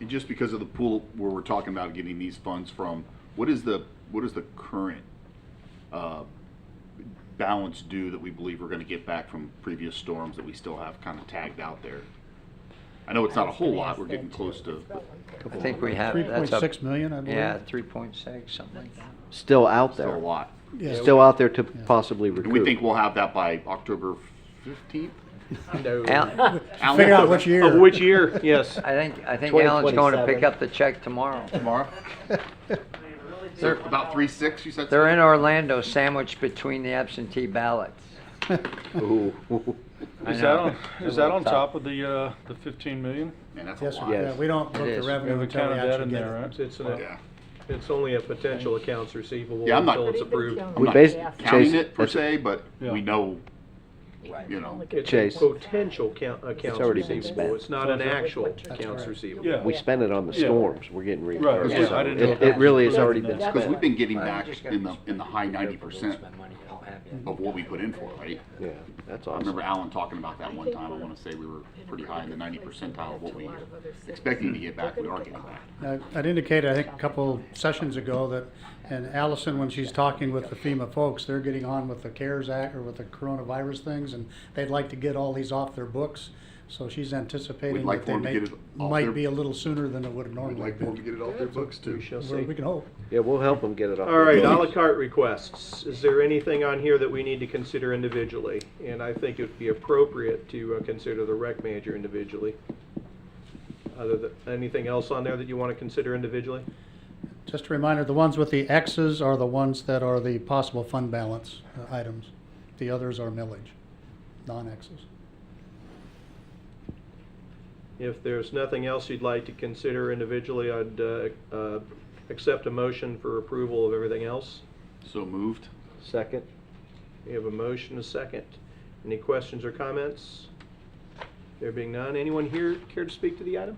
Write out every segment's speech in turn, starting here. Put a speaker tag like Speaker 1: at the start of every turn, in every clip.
Speaker 1: And just because of the pool where we're talking about getting these funds from, what is the, what is the current uh, balance due that we believe we're gonna get back from previous storms that we still have kind of tagged out there? I know it's not a whole lot, we're getting close to, but-
Speaker 2: I think we have, that's up.
Speaker 3: 3.6 million, I believe.
Speaker 2: Yeah, three point six, something like that.
Speaker 4: Still out
Speaker 1: still a
Speaker 4: there,
Speaker 1: lot.
Speaker 3: Yeah.
Speaker 4: still out there to possibly
Speaker 1: And we think
Speaker 4: recoup.
Speaker 1: we'll have that by October fifteenth?
Speaker 2: Al,
Speaker 3: Figure out which year.
Speaker 5: Of which year, yes.
Speaker 2: I think, I think Alan's going to pick up the check tomorrow.
Speaker 1: Tomorrow? So about three six, you said?
Speaker 2: They're in Orlando sandwiched between the absentee ballots. I
Speaker 5: Is that
Speaker 2: know.
Speaker 5: on, is that on top of the, uh, the fifteen million?
Speaker 1: Man, that's a
Speaker 3: Yes,
Speaker 1: lot.
Speaker 3: yeah, we don't book
Speaker 2: It
Speaker 3: the
Speaker 2: is.
Speaker 5: We
Speaker 3: revenue
Speaker 5: haven't
Speaker 3: until we
Speaker 5: counted that
Speaker 3: actually
Speaker 5: in
Speaker 3: get
Speaker 5: there,
Speaker 3: it.
Speaker 5: right?
Speaker 6: It's, an-
Speaker 1: Yeah.
Speaker 6: it's only a potential accounts receivable
Speaker 1: Yeah, I'm not-
Speaker 6: until it's approved.
Speaker 4: We
Speaker 1: I'm
Speaker 4: base-
Speaker 1: not
Speaker 4: Chase,
Speaker 1: counting it per
Speaker 4: that's-
Speaker 1: se, but we
Speaker 5: Yeah.
Speaker 1: know, you know.
Speaker 6: It's a
Speaker 4: Chase.
Speaker 6: potential count, accounts
Speaker 4: already been
Speaker 6: receivable,
Speaker 4: spent.
Speaker 6: it's not an actual accounts
Speaker 3: right.
Speaker 6: receivable.
Speaker 5: Yeah.
Speaker 4: We spent it on the
Speaker 5: Yeah.
Speaker 4: storms, we're getting
Speaker 5: Right,
Speaker 4: reimbursed.
Speaker 1: yeah,
Speaker 4: so
Speaker 1: I
Speaker 5: didn't know
Speaker 4: It,
Speaker 5: that.
Speaker 4: it really has already been
Speaker 5: That's
Speaker 1: Because
Speaker 4: spent.
Speaker 1: we've been getting back in the, in the high ninety percent of what we put in for, right?
Speaker 4: Yeah, that's
Speaker 1: I
Speaker 4: awesome.
Speaker 1: remember Alan talking about that one time, I wanna say we were pretty high in the ninety percentile of what we expecting to get back, we are getting back.
Speaker 3: I- I'd indicated, I think, a couple sessions ago that, and Allison, when she's talking with the FEMA folks, they're getting on with the CARES Act or with the coronavirus things, and they'd like to get all these off their books. So she's
Speaker 1: We'd
Speaker 3: anticipating
Speaker 1: like
Speaker 3: that they
Speaker 1: for 'em to
Speaker 3: may,
Speaker 1: get it off their-
Speaker 3: might be a little sooner than it would have normally been.
Speaker 1: get it off their books too.
Speaker 6: We shall
Speaker 3: Well,
Speaker 6: see.
Speaker 3: We can hope.
Speaker 4: Yeah, we'll help them get it off.
Speaker 6: All right, à la carte requests. Is there anything on here that we need to consider individually? And I think it'd be appropriate to uh, consider the rec manager individually. Other than, anything else on there that you want to consider individually?
Speaker 3: Just a reminder, the ones with the X's are the ones that are the possible fund balance uh, items. The others are millage, non-X's.
Speaker 6: If there's nothing else you'd like to consider individually, I'd uh, uh, accept a motion for approval of everything else.
Speaker 1: So moved.
Speaker 4: Second,
Speaker 6: We have a motion, a second. Any questions or comments? There being none, anyone here care to speak to the item?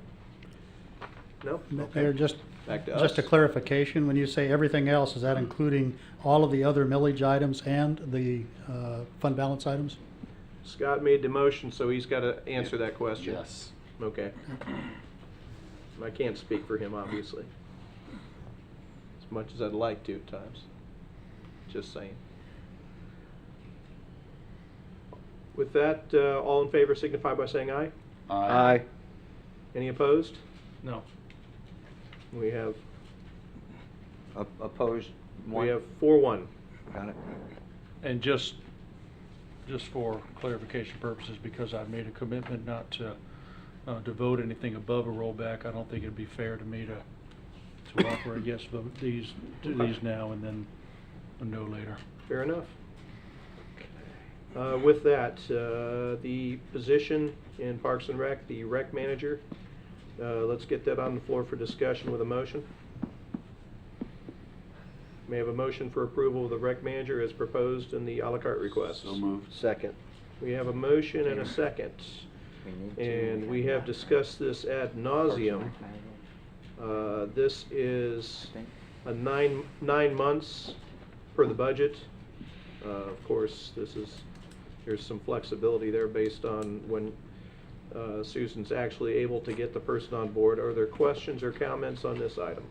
Speaker 6: No?
Speaker 3: Mayor, just,
Speaker 6: Back to
Speaker 3: just a
Speaker 6: us.
Speaker 3: clarification, when you say everything else, is that including all of the other millage items and the uh, fund balance items?
Speaker 6: Scott made the motion, so he's got to answer that question.
Speaker 1: Yes.
Speaker 6: Okay. I can't speak for him, obviously. As much as I'd like to at times. Just saying. With that, uh, all in favor signify by saying aye.
Speaker 4: aye.
Speaker 6: Any opposed?
Speaker 5: No.
Speaker 6: We have,
Speaker 2: Op- Opposed, one.
Speaker 6: we have four one.
Speaker 2: Got it.
Speaker 5: And just, just for clarification purposes, because I've made a commitment not to uh, devote anything above a rollback, I don't think it'd be fair to me to, to offer a yes vote these, to these now and then a no later.
Speaker 6: Fair enough. Uh, With that, uh, the position in Parks and Rec, the rec manager, uh, let's get that on the floor for discussion with a motion. May I have a motion for approval of the rec manager as proposed in the à la carte request.
Speaker 1: So moved.
Speaker 4: Second,
Speaker 6: We have a motion and a second,
Speaker 2: We need to-
Speaker 6: and we have discussed this ad nauseum. Uh, This is a nine, nine months per the budget. Uh, Of course, this is, there's some flexibility there based on when uh, Susan's actually able to get the person on board. Are there questions or comments on this item?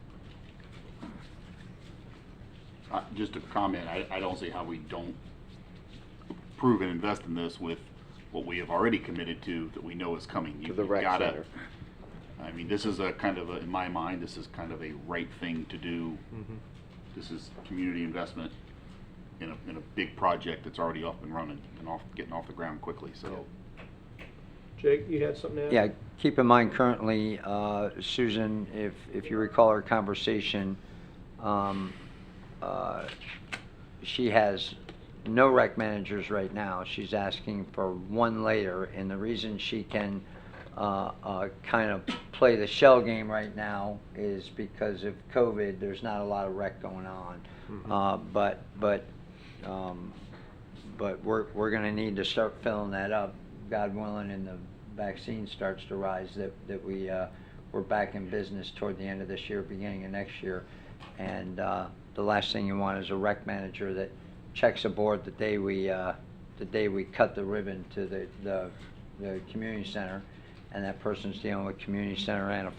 Speaker 1: Uh, Just a comment, I, I don't see how we don't prove and invest in this with what we have already committed to that we know is coming. You
Speaker 4: To the rec
Speaker 1: gotta-
Speaker 4: center.
Speaker 1: I mean, this is a kind of, a- in my mind, this is kind of a right thing to do. This is community investment in a, in a big project that's already up and running and off, getting off the ground quickly, so.
Speaker 6: Jake, you had something to add?
Speaker 2: Yeah, keep in mind currently, uh, Susan, if, if you recall our conversation, um, uh, she has no rec managers right now. She's asking for one later, and the reason she can uh, uh, kind of play the shell game right now is because of COVID, there's not a lot of rec going on. Uh, But, but um, but we're, we're gonna need to start filling that up, God willing, and the vaccine starts to rise, that, that we, uh, we're back in business toward the end of this year, beginning of next year. And, uh, the last thing you want is a rec manager that checks a board the day we, uh, the day we cut the ribbon to the, the, the community center, and that person's dealing with community center and a